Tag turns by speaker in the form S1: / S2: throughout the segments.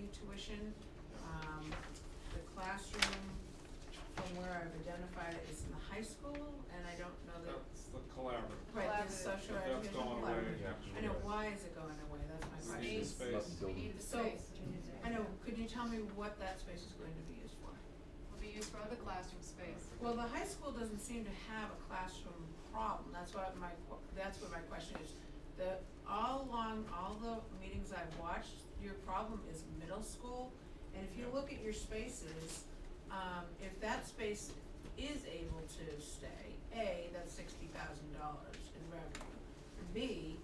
S1: addition, um, the classroom, from where I've identified it, is in the high school, and I don't know that,
S2: That's the collaborative.
S1: right, the
S3: Collaborative.
S1: social
S2: But that's
S1: education
S2: gone away.
S1: collaborative.
S2: actually.
S1: I know, why is it going away, that's my
S2: We
S1: question.
S2: need the
S3: Space.
S2: space.
S3: We need the
S1: So-
S3: space, we need the space.
S1: I know, could you tell me what that space is going to be used for?
S3: Will be used for other classroom space.
S1: Well, the high school doesn't seem to have a classroom problem, that's what my, qu- that's what my question is. The, all along, all the meetings I've watched, your problem is middle school, and if you
S2: Yeah.
S1: look at your spaces, um, if that space is able to stay, A, that's sixty thousand dollars in revenue. B,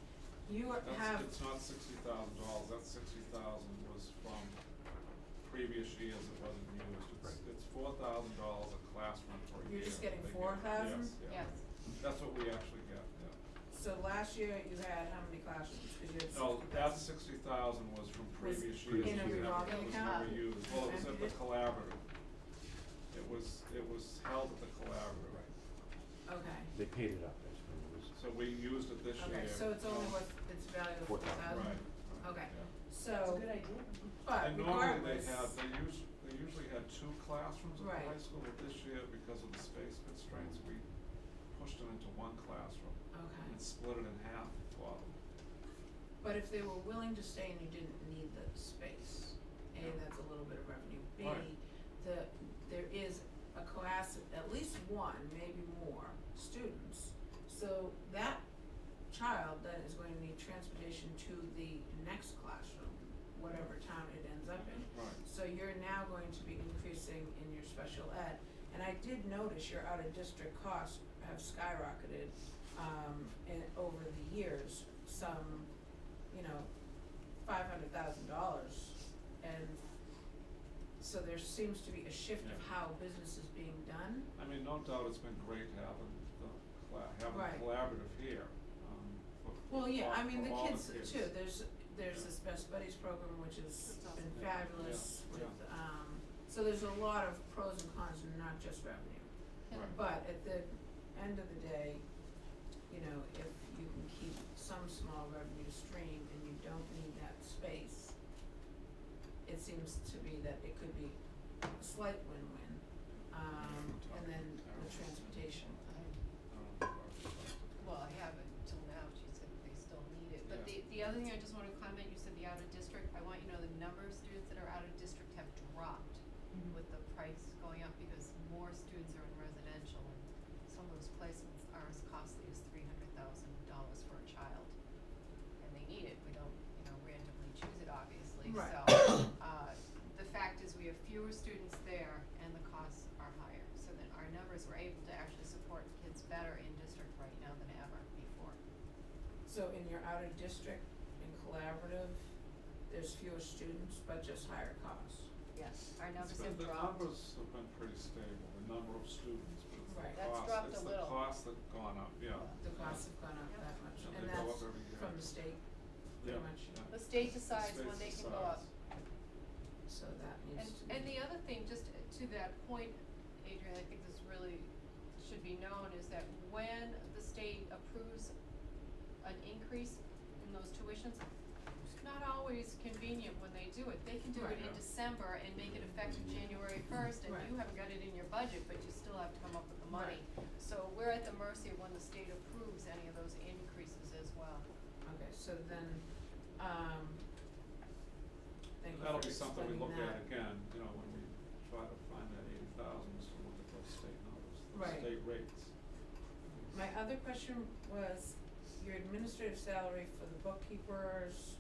S1: you are- have,
S2: That's, it's not sixty thousand dollars, that sixty thousand was from previous years, it wasn't used, it's,
S4: Right.
S2: it's four thousand dollars a classroom per year.
S1: You're just getting
S2: They get-
S1: 4,000?
S2: Yes,
S3: Yes.
S2: yeah, that's what we actually get, yeah.
S1: so last year you had how many classrooms, cause you had sixty
S2: No,
S1: thousand.
S2: that sixty thousand was from previous years, it
S4: in a
S2: was never,
S1: revolving
S2: it was
S1: account.
S2: never used, well, it was at the
S1: Okay.
S2: collaborative. It was, it was held at the collaborative,
S1: Okay.
S4: They paid it up, that's what it was.
S2: so we used it this year.
S1: Okay, so it's only
S2: um,
S1: worth, it's valuable for
S4: Four
S1: a
S4: thousand.
S1: thousand?
S2: Right, right,
S1: Okay.
S2: yeah.
S1: So,
S3: idea.
S1: but
S2: And normally they
S1: regardless,
S2: have, they us- they usually had two classrooms at the
S1: Right.
S2: high school, but this year, because of the space constraints, we pushed them into one classroom
S1: okay,
S2: and split it in half, well,
S1: but if they were willing to stay and you didn't need the space, A,
S2: Yeah.
S1: that's a little bit of revenue, B,
S2: Right.
S1: the, there is a class, of at least one, maybe more, students. So that child then is going to need transportation to the next classroom, whatever town it ends up in.
S2: right.
S1: So you're now going to be increasing in your special ed. And I did notice your out-of-district costs have skyrocketed, um, in, over the years, some, you know, five hundred thousand dollars. And so there seems to be a shift of
S2: Yeah.
S1: how business is being done.
S2: I mean, no doubt it's been great having the cla- having
S1: Right.
S2: collaborative here, um, for
S1: Well, yeah,
S2: all-
S1: I mean,
S2: for
S1: the
S2: all
S1: kids
S2: kids.
S1: too, there's, there's
S2: Yeah.
S1: this Best Buddies program, which has
S3: That's awesome.
S1: been
S2: Yeah, yeah,
S1: fabulous with,
S2: yeah.
S1: um, so there's a lot of pros and cons and not just revenue.
S2: Right.
S1: But at the end of the day, you know, if you can keep some small revenue stream and you don't need that space, it seems to be that it could be a slight win-win, um, and then the transportation.
S2: I don't know if I've talked to-
S3: Well, I haven't till now, she said they still need it, but the,
S2: Yeah.
S3: the other thing I just wanna comment, you said the out of district, I want you to know the number of students that are out of district have dropped with the price going up, because more students are in residential, and some of those placements are as costly as three hundred thousand dollars for a child. And they need it, we don't, you know, randomly choose it, obviously,
S1: Right.
S3: so, uh, the fact is, we have fewer students there, and the costs are higher, so that our numbers, we're able to actually support kids better in district right now than ever before.
S1: So in your outer district and collaborative, there's fewer students, but just higher costs.
S3: Yes. Our
S2: It's
S3: numbers
S2: been-
S3: have
S2: the
S3: dropped.
S2: numbers have been pretty stable, the number of students, but it's the
S1: Right.
S3: That's
S2: cost-
S3: dropped
S2: it's
S3: a
S2: the
S3: little.
S2: cost that gone up, yeah.
S1: The costs have gone up
S3: Yeah.
S1: that much, and
S2: And they go
S1: that's
S2: up every year.
S1: from the state,
S2: Yeah,
S1: pretty much.
S2: yeah.
S3: The state decides when
S2: Space
S3: they can go
S2: decides.
S3: up.
S1: so that needs to be.
S3: And, and the other thing, just to that point, Adrian, I think this really should be known, is that when the state approves an increase in those tuitions, it's not always convenient when they do it. They can do it
S1: Right.
S3: in December and make it effective January first, and you
S1: Right.
S3: haven't got it in your budget, but you still have to come up with the money. So we're at the mercy of when the state approves any of those increases as well.
S1: Okay, so then, um, thank you
S2: That'll
S1: for
S2: be something we
S1: explaining
S2: look at
S1: that.
S2: again, you know, when we try to find that eighty thousand, is to look at those state numbers,
S1: Right.
S2: those state rates.
S1: My other question was your administrative salary for the bookkeeper's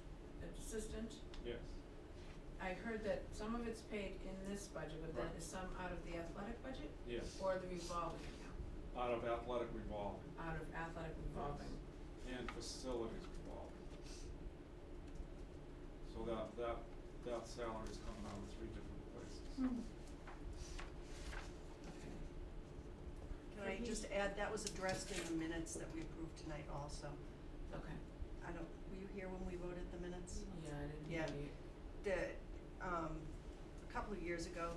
S1: assistant.
S2: Yes,
S1: I heard that some of it's paid in this budget, but then
S2: Right.
S1: is some out of the athletic budget
S2: yes,
S1: or the revolving account?
S2: out of athletic revolving
S1: Out of athletic revolving.
S2: and facilities revolving. So that, that, that salary's coming out of three different places.
S3: Mm-hmm.
S1: Okay.
S5: Can I just add, that was addressed in the minutes that we approved tonight also.
S1: Okay,
S5: I don't, were you here when we voted the minutes?
S1: yeah, I didn't
S5: Yeah.
S1: really-
S5: The, um, a couple of years ago,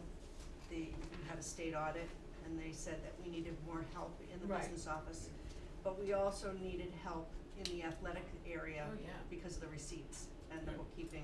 S5: the, we had a state audit and they said that we needed more help in the
S1: Right.
S5: business office. But we also needed help in the athletic area
S1: Oh, yeah.
S5: because of the receipts and the
S2: Right.
S5: bookkeeping